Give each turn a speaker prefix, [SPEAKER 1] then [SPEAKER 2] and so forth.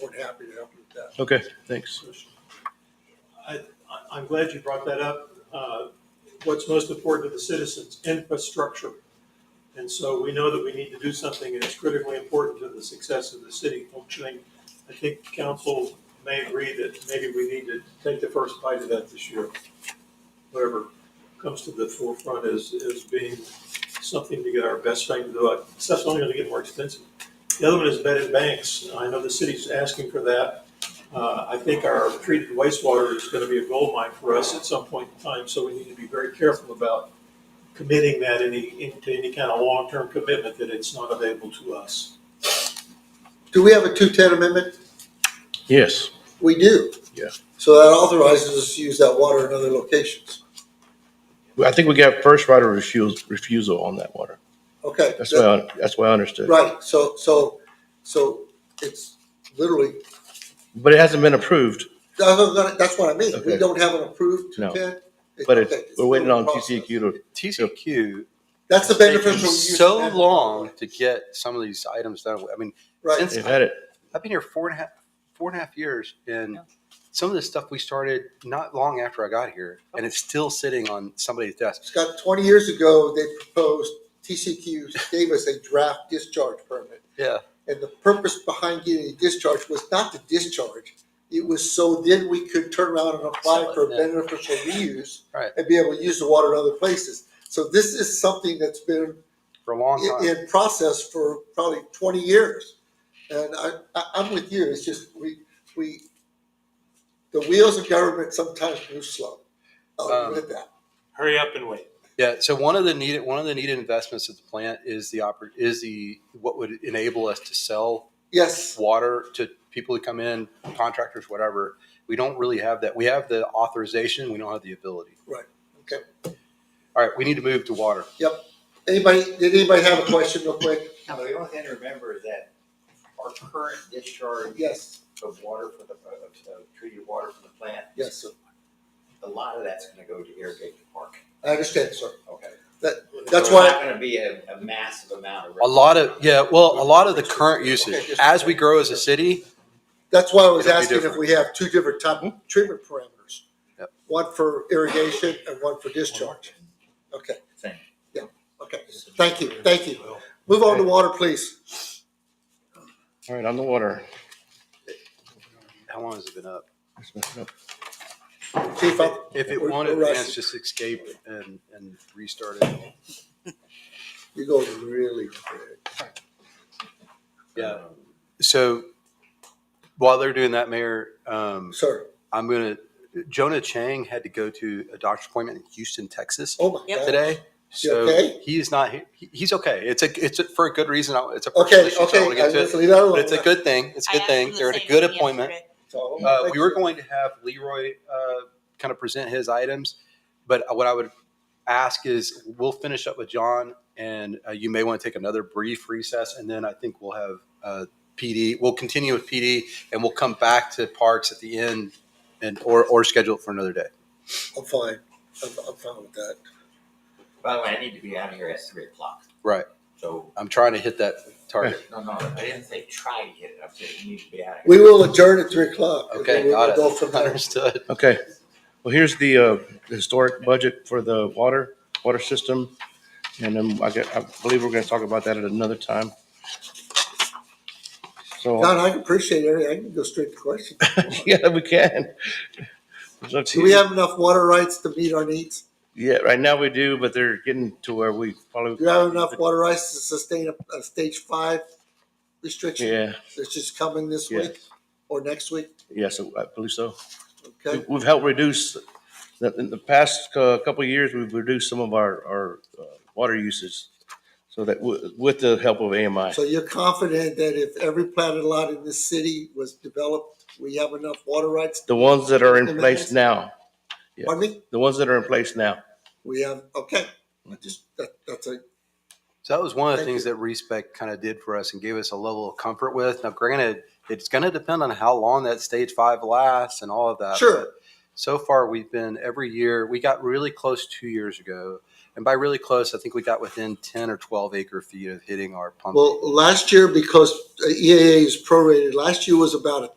[SPEAKER 1] happy to help you with that.
[SPEAKER 2] Okay, thanks.
[SPEAKER 3] I- I'm glad you brought that up. Uh, What's most important to the citizens, infrastructure. And so we know that we need to do something and it's critically important to the success of the city functioning. I think council may agree that maybe we need to take the first bite of that this year. Whatever comes to the forefront is, is being something to get our best bang for the buck. Stuff's only gonna get more expensive. The other one is vetted banks. I know the city's asking for that. Uh, I think our treated wastewater is going to be a gold mine for us at some point in time, so we need to be very careful about committing that any, into any kind of long-term commitment that it's not available to us.
[SPEAKER 1] Do we have a two-ten amendment?
[SPEAKER 2] Yes,
[SPEAKER 1] We do.
[SPEAKER 2] Yeah.
[SPEAKER 1] So that authorizes us to use that water in other locations.
[SPEAKER 2] Well, I think we got first right of refusal, refusal on that water.
[SPEAKER 1] Okay.
[SPEAKER 2] That's why, I- that's why I understood.
[SPEAKER 1] Right, so, so, so it's literally,
[SPEAKER 2] But it hasn't been approved,
[SPEAKER 1] that's what I'm- that's what I mean. We
[SPEAKER 2] Okay.
[SPEAKER 1] don't have an approved
[SPEAKER 2] No.
[SPEAKER 1] two-ten.
[SPEAKER 2] but it's,
[SPEAKER 1] Okay,
[SPEAKER 2] we're waiting on
[SPEAKER 1] process.
[SPEAKER 2] TCEQ to,
[SPEAKER 4] TCQ
[SPEAKER 1] That's the benefit
[SPEAKER 4] taking
[SPEAKER 1] from use.
[SPEAKER 4] so long to get some of these items done. I mean,
[SPEAKER 1] Right,
[SPEAKER 4] since-
[SPEAKER 2] they've had it.
[SPEAKER 4] I've been here four and a half, four and a half years, and some of this stuff we started not long after I got here, and it's still sitting on somebody's desk.
[SPEAKER 1] Scott, twenty years ago, they proposed, TCQ gave us a draft discharge permit.
[SPEAKER 4] Yeah.
[SPEAKER 1] And the purpose behind getting a discharge was not to discharge. It was so then we could turn around and apply
[SPEAKER 4] Sell it,
[SPEAKER 1] for
[SPEAKER 4] yeah.
[SPEAKER 1] beneficial reuse.
[SPEAKER 4] Right.
[SPEAKER 1] And be able to use the water in other places. So this is something that's been
[SPEAKER 4] For a long
[SPEAKER 1] in,
[SPEAKER 4] time.
[SPEAKER 1] in process for probably twenty years. And I, I, I'm with you, it's just, we, we, the wheels of government sometimes move slow. I'll
[SPEAKER 4] Um,
[SPEAKER 1] admit that.
[SPEAKER 5] Hurry up and wait.
[SPEAKER 4] Yeah, so one of the needed, one of the needed investments of the plant is the oper, is the, what would enable us to sell
[SPEAKER 1] Yes,
[SPEAKER 4] water to people who come in, contractors, whatever. We don't really have that. We have the authorization, we don't have the ability.
[SPEAKER 1] okay.
[SPEAKER 4] All right, we need to move to water.
[SPEAKER 1] Anybody, did anybody have a question real quick?
[SPEAKER 6] Now, the only thing to remember is that our current discharge
[SPEAKER 1] Yes,
[SPEAKER 6] of water for the, of of treated water from the plant,
[SPEAKER 1] yes, sir.
[SPEAKER 6] a lot of that's gonna go to irrigate the park,
[SPEAKER 1] I understand, sir.
[SPEAKER 6] okay?
[SPEAKER 1] That's
[SPEAKER 6] So it's
[SPEAKER 1] why,
[SPEAKER 6] Not gonna be a, a massive amount of.
[SPEAKER 4] A lot of, yeah, well, a lot of the current
[SPEAKER 1] Okay,
[SPEAKER 4] usage,
[SPEAKER 1] just-
[SPEAKER 4] as we grow as a city,
[SPEAKER 1] that's why I was
[SPEAKER 4] It'll be
[SPEAKER 1] asking if
[SPEAKER 4] different.
[SPEAKER 1] we have two different type of treatment parameters.
[SPEAKER 4] Yep.
[SPEAKER 1] One for irrigation and one for discharge. Okay,
[SPEAKER 6] Same.
[SPEAKER 1] okay. Thank you, thank you. Move on to water, please.
[SPEAKER 2] All right, on the water.
[SPEAKER 4] how long has it been up?
[SPEAKER 1] Chief, I'm-
[SPEAKER 4] If it
[SPEAKER 1] We're-
[SPEAKER 4] won't
[SPEAKER 1] we're
[SPEAKER 4] advance,
[SPEAKER 1] rushing.
[SPEAKER 4] just escape and, and restart it.
[SPEAKER 1] You go really quick.
[SPEAKER 4] Yeah. So while they're doing that, Mayor, um,
[SPEAKER 1] Sir,
[SPEAKER 4] I'm gonna, Jonah Chang had to go to a doctor's appointment in Houston, Texas
[SPEAKER 1] oh my
[SPEAKER 7] Yep.
[SPEAKER 1] God.
[SPEAKER 4] today. So
[SPEAKER 1] okay?
[SPEAKER 4] he is not, he- he's okay. It's a, it's a- for a good reason. I- It's a personal
[SPEAKER 1] Okay,
[SPEAKER 4] issue, so I don't wanna
[SPEAKER 1] okay,
[SPEAKER 4] get
[SPEAKER 1] I-
[SPEAKER 4] to it.
[SPEAKER 1] let's leave that alone.
[SPEAKER 4] But it's a good thing. It's a
[SPEAKER 7] I
[SPEAKER 4] good
[SPEAKER 7] asked
[SPEAKER 4] thing.
[SPEAKER 7] him the
[SPEAKER 4] They're at a
[SPEAKER 7] same
[SPEAKER 4] good
[SPEAKER 7] thing
[SPEAKER 4] appointment.
[SPEAKER 7] yesterday.
[SPEAKER 1] So,
[SPEAKER 4] Uh,
[SPEAKER 1] thank
[SPEAKER 4] we were
[SPEAKER 1] you.
[SPEAKER 4] going to have Leroy uh, kind of present his items, but uh, what I would ask is we'll finish up with John, and uh, you may want to take another brief recess, and then I think we'll have uh, PD. We'll continue with PD, and we'll come back to Parks at the end, and or or schedule it for another day.
[SPEAKER 1] I'm fine. I'm, I'm fine with that.
[SPEAKER 6] By the way, I need to be out of here at three o'clock.
[SPEAKER 4] Right.
[SPEAKER 6] So,
[SPEAKER 4] I'm trying to hit that target.
[SPEAKER 6] no, no, I didn't say try to hit it, I said you need to be out of here.
[SPEAKER 1] We will adjourn at three o'clock. and then
[SPEAKER 4] Okay,
[SPEAKER 1] we
[SPEAKER 4] got
[SPEAKER 1] will Go from
[SPEAKER 4] it.
[SPEAKER 1] there.
[SPEAKER 4] Understood.
[SPEAKER 2] Okay. Well, here's the uh, historic budget for the water, water system. And then I get, I believe we're going to talk about that at another time. So,
[SPEAKER 1] Don, I appreciate it. I can go straight to questions.
[SPEAKER 2] yeah, we can. It's up to
[SPEAKER 1] Do we
[SPEAKER 2] you.
[SPEAKER 1] have enough water rights to meet our needs?
[SPEAKER 2] Yeah, right now we do, but they're getting to where we probably.
[SPEAKER 1] Do we have enough water rights to sustain a, a stage five restriction
[SPEAKER 2] Yeah,
[SPEAKER 1] that's just coming this
[SPEAKER 2] Yeah.
[SPEAKER 1] week or next week?
[SPEAKER 2] yes, I believe so.
[SPEAKER 1] Okay,
[SPEAKER 2] We've helped reduce, in the past uh, couple of years, we've reduced some of our, our uh, water usage. So that, wi- with the help of AMI.
[SPEAKER 1] so you're confident that if every platted lot in this city was developed, we have enough water rights?
[SPEAKER 2] The ones that are in place now, Yeah.
[SPEAKER 1] Pardon me?
[SPEAKER 2] the ones that are in place now.
[SPEAKER 1] We have, okay, I just, that, that's a,
[SPEAKER 4] So that was one of the
[SPEAKER 1] Thank
[SPEAKER 4] things
[SPEAKER 1] you.
[SPEAKER 4] that Respec kind of did for us and gave us a level of comfort with. Now, granted, it's going to depend on how long that stage five lasts and all of
[SPEAKER 2] Uh,
[SPEAKER 4] that.
[SPEAKER 1] Sure.
[SPEAKER 4] but So far, we've been every year. We got really close two years ago, and by really close, I think we got within ten or twelve acre
[SPEAKER 2] um,
[SPEAKER 4] feet of hitting our pump.
[SPEAKER 1] E well, last year, because EAA is prorated, last year was about a